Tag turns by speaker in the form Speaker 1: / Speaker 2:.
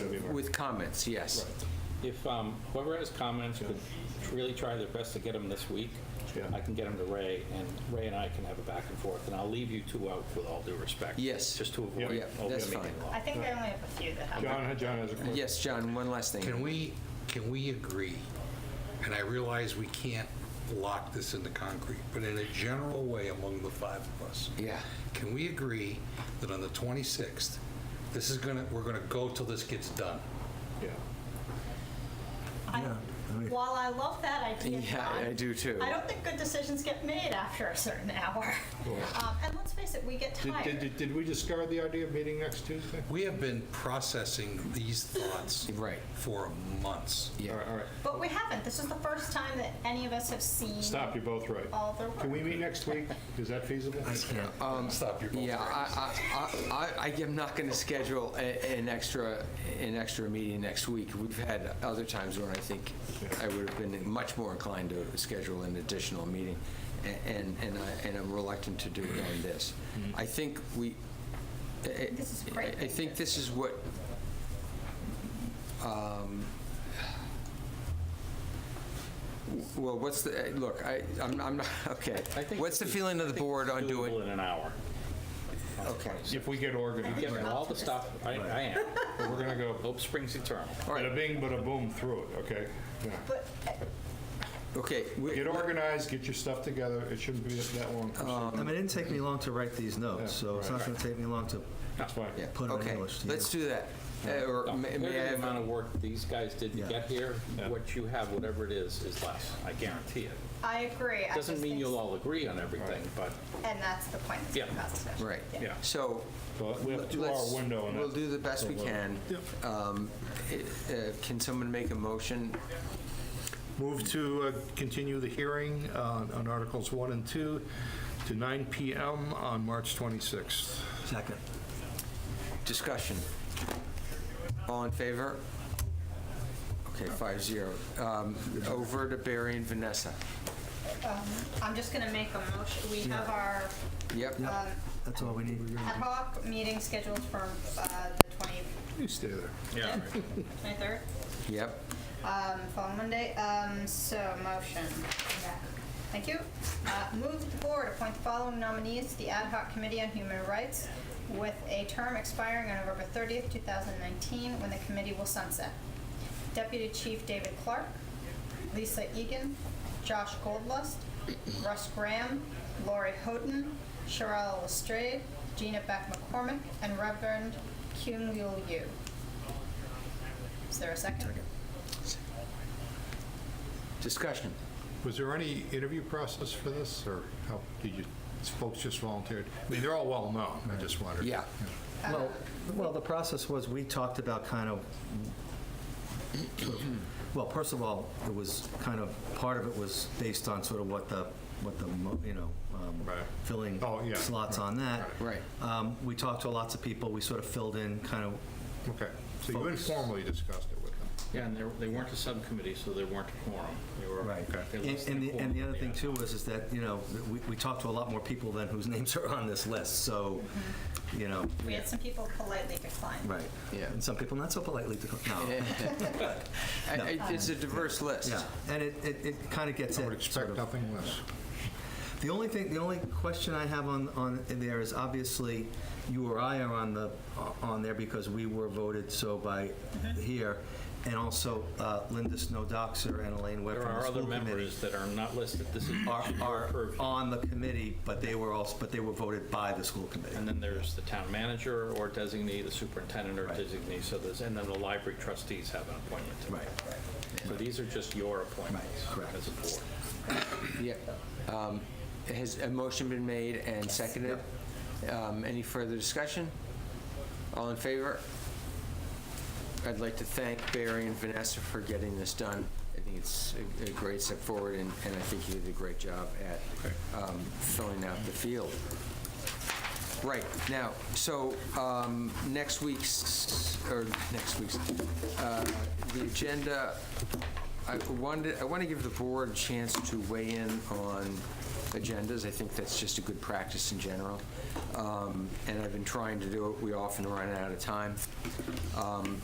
Speaker 1: With comments, yes.
Speaker 2: If um, whoever has comments could really try their best to get them this week,
Speaker 3: Yeah.
Speaker 2: I can get them to Ray, and Ray and I can have a back and forth, and I'll leave you two out with all due respect.
Speaker 1: Yes.
Speaker 2: Just to
Speaker 3: Yeah.
Speaker 2: avoid.
Speaker 3: Yeah,
Speaker 2: open
Speaker 1: that's
Speaker 2: meeting
Speaker 1: fine.
Speaker 2: law.
Speaker 4: I think I only have a few that have.
Speaker 3: John, John has a question.
Speaker 1: Yes, John, one last thing.
Speaker 5: Can we, can we agree, and I realize we can't lock this into concrete, but in a general way among the five of us,
Speaker 1: Yeah,
Speaker 5: can we agree that on the 26th, this is gonna, we're gonna go till this gets done?
Speaker 3: Yeah.
Speaker 4: I- While I love that idea,
Speaker 1: Yeah, I-
Speaker 4: John,
Speaker 1: I do too.
Speaker 4: I don't think good decisions get made after a certain hour. Um, And let's face it, we get
Speaker 3: Did- Did,
Speaker 4: tired.
Speaker 3: did, did we discard the idea of meeting next Tuesday?
Speaker 5: We have been processing these thoughts
Speaker 1: Right.
Speaker 5: for months.
Speaker 3: All
Speaker 1: yeah.
Speaker 3: right, all right.
Speaker 4: But we haven't. This is the first time that any of us have seen
Speaker 3: Stop, you're both right.
Speaker 4: all the work.
Speaker 3: Can we meet next week? Is that feasible?
Speaker 1: Um,
Speaker 5: Stop, your are both
Speaker 1: Yeah,
Speaker 5: right.
Speaker 1: I, I, I, I- I am not going to schedule a- an extra, an extra meeting next week. We've had other times when I think I would have been much more inclined to schedule an additional meeting, a- and, and I, and I'm reluctant to do it on this.
Speaker 2: Mm-hmm.
Speaker 1: I think we, I- I-
Speaker 4: This is great.
Speaker 1: I think this is what, um, well, what's the, eh, look, I, I'm I'm not, okay.
Speaker 2: I think
Speaker 1: What's the
Speaker 2: this is-
Speaker 1: feeling of
Speaker 2: I
Speaker 1: the
Speaker 2: think
Speaker 1: board
Speaker 2: it's
Speaker 1: on
Speaker 2: doable
Speaker 1: doing?
Speaker 2: In an hour.
Speaker 1: Okay.
Speaker 3: If we get organized,
Speaker 2: Give me all the stuff, I, I am.
Speaker 3: but we're gonna go
Speaker 2: Hope springs eternal.
Speaker 1: All right.
Speaker 3: bada bing, bada boom through it, okay? Yeah.
Speaker 4: But uh,
Speaker 1: Okay. we-
Speaker 3: Get organized, get your stuff together. It shouldn't be that long.
Speaker 1: Uh,
Speaker 6: I mean, it didn't take me long to write these notes,
Speaker 3: Yeah,
Speaker 6: so it's not
Speaker 3: right.
Speaker 6: going to take me long to,
Speaker 3: That's fine.
Speaker 1: yeah,
Speaker 6: put 'em in
Speaker 1: okay,
Speaker 6: English,
Speaker 1: Let's do that. Uh, Or
Speaker 2: No,
Speaker 1: may
Speaker 2: Compared to
Speaker 1: may I
Speaker 2: the
Speaker 1: have,
Speaker 2: amount of work these guys did to
Speaker 6: Yeah.
Speaker 2: get here,
Speaker 3: Yeah.
Speaker 2: what you have, whatever it is, is less, I guarantee it.
Speaker 4: I agree. I
Speaker 2: Doesn't
Speaker 4: just
Speaker 2: mean
Speaker 4: think-
Speaker 2: you'll all agree on everything, but
Speaker 4: And that's the point that's
Speaker 2: Yeah.
Speaker 4: been passed today.
Speaker 1: right.
Speaker 3: Yeah.
Speaker 1: So.
Speaker 3: Well, we have a two-hour
Speaker 1: let's-
Speaker 3: window on
Speaker 1: We'll
Speaker 3: that.
Speaker 1: do the best we can. Um, it- uh, Can someone make a motion?
Speaker 3: Move to uh, continue the hearing uh, on Articles 1 and 2 to 9 PM on March 26th.
Speaker 6: second.
Speaker 1: Discussion. All in favor? Okay, five zero. Um, Over to Barry and Vanessa.
Speaker 4: Um, I'm just going to make a motion. We have our
Speaker 1: Yep.
Speaker 4: um,
Speaker 6: That's all we need.
Speaker 4: ad hoc meeting scheduled for uh, the 20
Speaker 3: You stay there.
Speaker 2: yeah,
Speaker 4: 23rd.
Speaker 1: Yep.
Speaker 4: Um, following Monday, um, so motion. Thank you. Uh, move that the board appoint the following nominees to the Ad hoc Committee on Human Rights with a term expiring on November thirtieth, two thousand nineteen, when the committee will sunset. Deputy Chief David Clark, Lisa Egan, Josh Goldlust, Russ Graham, Lori Houghton, Sherelle Lestrade, Gina Beck McCormick, and Reverend Kyung Yul Yu. Is there a Second.
Speaker 1: Discussion.
Speaker 3: Was there any interview process for this, or how, did you, folks just volunteered? I mean, they're all well-known, I just wondered.
Speaker 1: Yeah.
Speaker 6: Well, well, the process was, we talked about kind of, well, first of all, it was kind of, part of it was based on sort of what the, what the, mo- you know, um,
Speaker 3: Right.
Speaker 6: filling
Speaker 3: Oh, yeah,
Speaker 6: slots on that.
Speaker 1: Right.
Speaker 6: Um, We talked to lots of people, we sort of filled in kind of,
Speaker 3: Okay, so you
Speaker 6: Folks.
Speaker 3: informally discussed it with them?
Speaker 2: yeah, and they- they weren't a subcommittee, so they weren't a quorum. They were-
Speaker 6: right.
Speaker 2: they
Speaker 6: And,
Speaker 2: lost
Speaker 6: and the, and the
Speaker 2: quorum,
Speaker 6: other thing
Speaker 2: yeah.
Speaker 6: too was, is that, you know, we, we talked to a lot more people than whose names are on this list, so, you know,
Speaker 4: We had some people politely decline.
Speaker 6: Right.
Speaker 1: Yeah.
Speaker 6: And some people not so politely decline. No.
Speaker 1: I- I- Eh, It's a diverse list.
Speaker 6: yeah. And it, it, it kind of gets
Speaker 3: I would
Speaker 6: it
Speaker 3: expect
Speaker 6: sort of.
Speaker 3: nothing less.
Speaker 6: The only thing, the only question I have on, on there is obviously you or I are on the, uh, on there because we were voted so by
Speaker 2: Mm-hmm.
Speaker 6: here. And also uh, Linda Snowdoxer and Elaine Webb
Speaker 2: There
Speaker 6: from the
Speaker 2: are
Speaker 6: school
Speaker 2: other
Speaker 6: committee
Speaker 2: members that are not listed, this is
Speaker 6: are,
Speaker 2: your
Speaker 6: are
Speaker 2: purview.
Speaker 6: on the committee, but they were also, but they were voted by the school committee.
Speaker 2: And then there's the town manager or designee, the superintendent or
Speaker 6: Right.
Speaker 2: designee, so there's, and then the library trustees have an appointment. too.
Speaker 6: Right.
Speaker 2: So these are just your appointments
Speaker 6: Right, correct.
Speaker 2: as a board.
Speaker 1: Yeah. Um, Has a motion been made and seconded? Um, Any further discussion? All in favor? I'd like to thank Barry and Vanessa for getting this done. I think it's a- a great step forward, and and I think you did a great job at um, filling out the field. Right, now, so um, next week's, or next week's, uh, the agenda, I wanted, I want to give the board a chance to weigh in on agendas. I think that's just a good practice in general. Um, And I've been trying to do it, we often run out of time. Um,